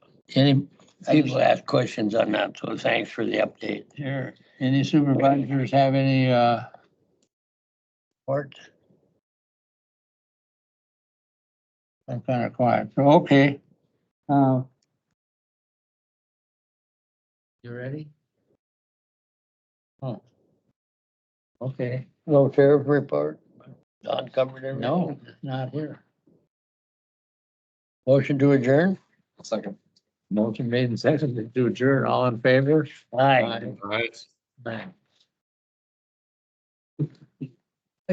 Any, people ask questions on that, so thanks for the update. Here, any supervisors have any, uh, Court, I'm kind of quiet, so, okay. Uh, You ready? Oh. Okay, no sheriff report? Don covered everything? no, not here. Motion to adjourn? Second. Motion made and seconded to adjourn, all in favor? Aye. Aye.